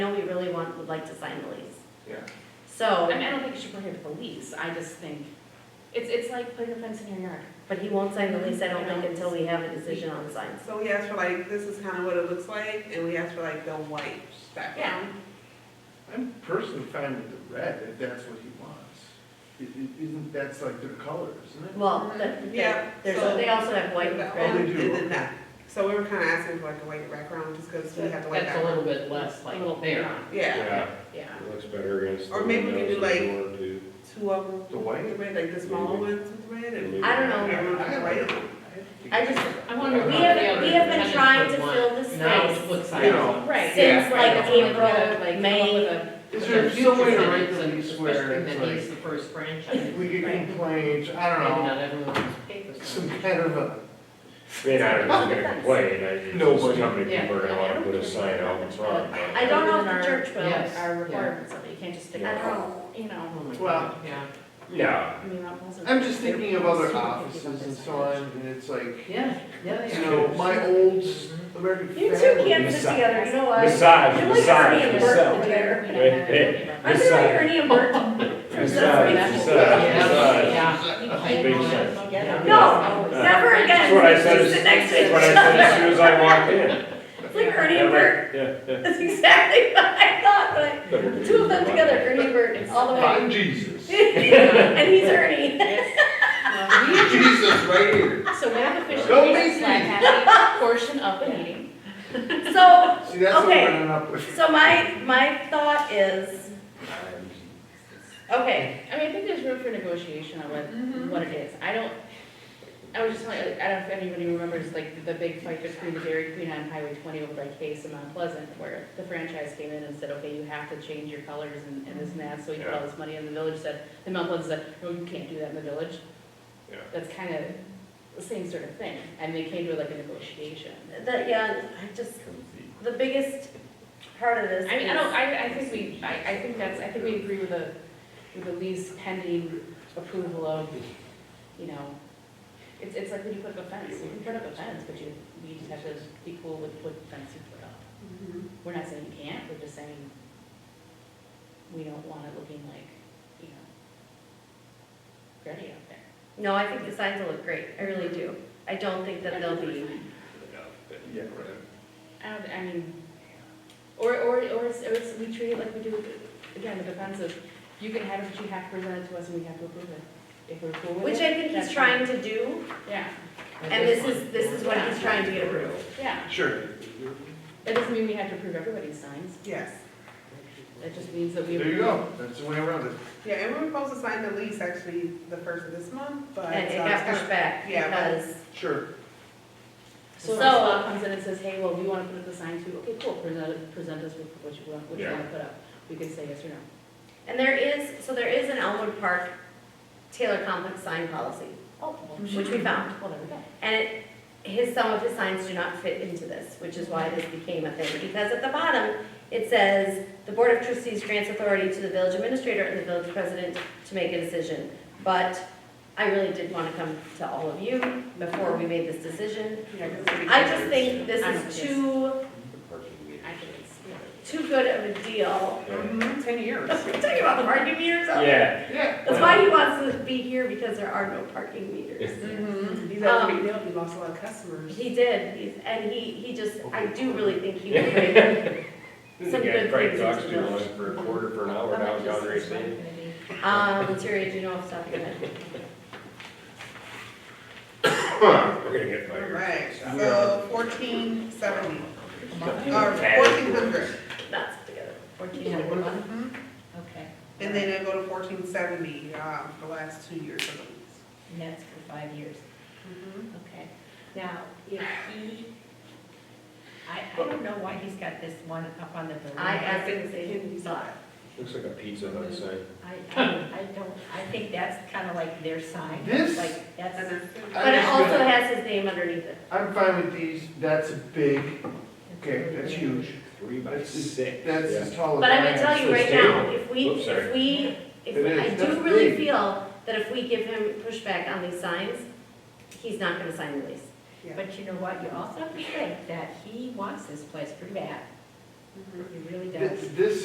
want, would like to sign the lease. Yeah. So. I mean, I don't think you should prohibit the lease, I just think, it's, it's like putting a fence in your yard. But he won't sign the lease, I don't think, until we have a decision on the signs. So we asked for like, this is kind of what it looks like, and we asked for like the white background. I'm personally fine with the red, if that's what he wants. It, it, isn't, that's like their color, isn't it? Mm-hmm. Well, Oh, the- Yeah, the- there's, so- they also have white and The Oh, red. they orange do, And okay. then that, so we were kind of asking for like a white background, just because we have the white That's a little background. bit less A little like there. Yeah, Yeah. It looks better against. the Or maybe we could do, windows if you like, wanted to. two of them. The white? with red, Like the smaller ones with red, and I don't I know. don't know, I the like white. it. I just- I wonder. We what have- the other we have been tenants trying would to want fill this Now space. to put You signs know. up. Right. Since, yeah, right, like, that's what I'm April, gonna, like, come May. up with a- Is there future some way to write tenants, the and lease where especially that he's it's the first franchise. like, we get right? complaints, I Maybe don't know, not everyone's papers. some kind of a, I mean, I'm not gonna complain, I just, Nobody. how many people are Yeah. gonna wanna put a sign out in front? but- I don't know if the church Yes, will, yeah. our requirements of it, you can't just pick. I I don't, don't- know, you know, Oh my God, Well, Yeah. No, I mean, that wasn't. I'm just thinking of other They're- offices and so on, and it's like, Yeah, yeah, they you are. know, my old American family. You two can't put it Besides- together, you know what? besides, You're like Ernie and besides Bert yourself. together. You know, Hey, Aren't they uh, like Ernie and Bert? from Besides Sesame yourself. Street? Yeah. Big sense. Yeah. No, never That's what I again, said They as- sit next to That's each what I said as other. soon as I walked in. It's like Ernie and Bert, Yeah, yeah. that's exactly what I thought, but Better the be two of them one. together, Ernie and Bert, all the way. I'm Jesus. And he's Ernie. Well, we- Jesus right here. So we have Go officially made a Macy's. flag happy portion of the meeting. So, See, that's what Okay. we're running up with. So my, my thought is, okay, I mean, I think there's room for negotiation on what, what it is. I don't, I was just like, I don't know if anybody remembers, like, the big fight between the Dairy Queen on Highway twenty over by Case and Mount Pleasant, where the franchise came in and said, okay, you have to change your colors and, and this and that, so we put all this money in the village, said, and Mount Pleasant said, no, you can't do that in the village. Yeah. That's kind of the same sort of thing, and they came to like a negotiation. that, yeah, I just, the biggest part of this I mean, I don't, is, I, I think we, I, I think that's, I think we agree with the, with the lease pending approval of, you know, it's, it's like when you put up a fence, you can put up a fence, but you, you just have to be cool with what fence you put up. mm-hmm, We're not saying you can't, we're just saying we don't want it looking like, you know, gritty out there. no, I think the signs will look great, I really do. I don't think that they'll be, Yeah, I don't, I mean, or, or, or it's, or it's, we treat it like we do, again, with the fence of, you can have it, but you have to present it to us and we have to approve it. If we're cool with it. which I think he's that's trying to do, fine. Yeah, and this is, this is what he's trying to get approved. yeah, Sure. that doesn't mean we have to approve everybody's signs, Yes, that just means that we. There you go, that's the way around it. yeah, and we were supposed to sign the lease actually the first of this month, but. And it uh, got pushed back Yeah, but- because, Sure. So if So- law comes in and says, hey, well, we wanna put up the sign too, okay, cool, present, it- present us with what you want, what you Yeah. wanna put up, we can say yes or no. and there is, so there is an Elmwood Park Taylor Complex sign policy, Oh, well, which we found. Well, there we go. And it, his, some of his signs do not fit into this, which is why this became a thing, because at the bottom, it says, "The Board of Trustees grants authority to the village administrator and the village president to make a decision." But I really did want to come to all of you before we made this decision. Yeah, 'cause we- I just think this I don't is too, I think it's, yeah. too good of a deal. Mhm, Ten years. We're talking about parking meters, that's Yeah. Yeah. why he wants to be here, because there are no parking meters. Mhm. He's Um, had a big deal, he lost a lot of customers. He did, he's, and he, he just, I do really think he would bring some Yeah, good Frank things talks into to the village. one for a quarter for an hour How much downtown is this racing. one gonna be? Um, Terry, do you know off the top of your head? We're gonna get All fired. right, so fourteen seventy, or Tag. fourteen hundred, Knots together. Fourteen hundred a month? Mhm. Okay. and then it'll go to fourteen seventy, um, the last two years of the lease. And that's for five years, Mhm. okay. Now, if he, I, I don't know why he's got this one up on the building. I asked him the same thought. Looks like a pizza hut sign. I, I I don't, I think that's kind of like their sign. This- Like, And that's, then But it also has his name underneath it. I'm fine with these, that's a big, okay, that's huge. Three by That's as- six. That's as tall as. But I'm am. gonna tell you right now, if we, Oops, sorry. if we, if, It we- I is, do that's really big. feel that if we give him pushback on these signs, he's not gonna sign the lease. but you know what, you also have to think that he wants this place pretty bad. He really does. Th- This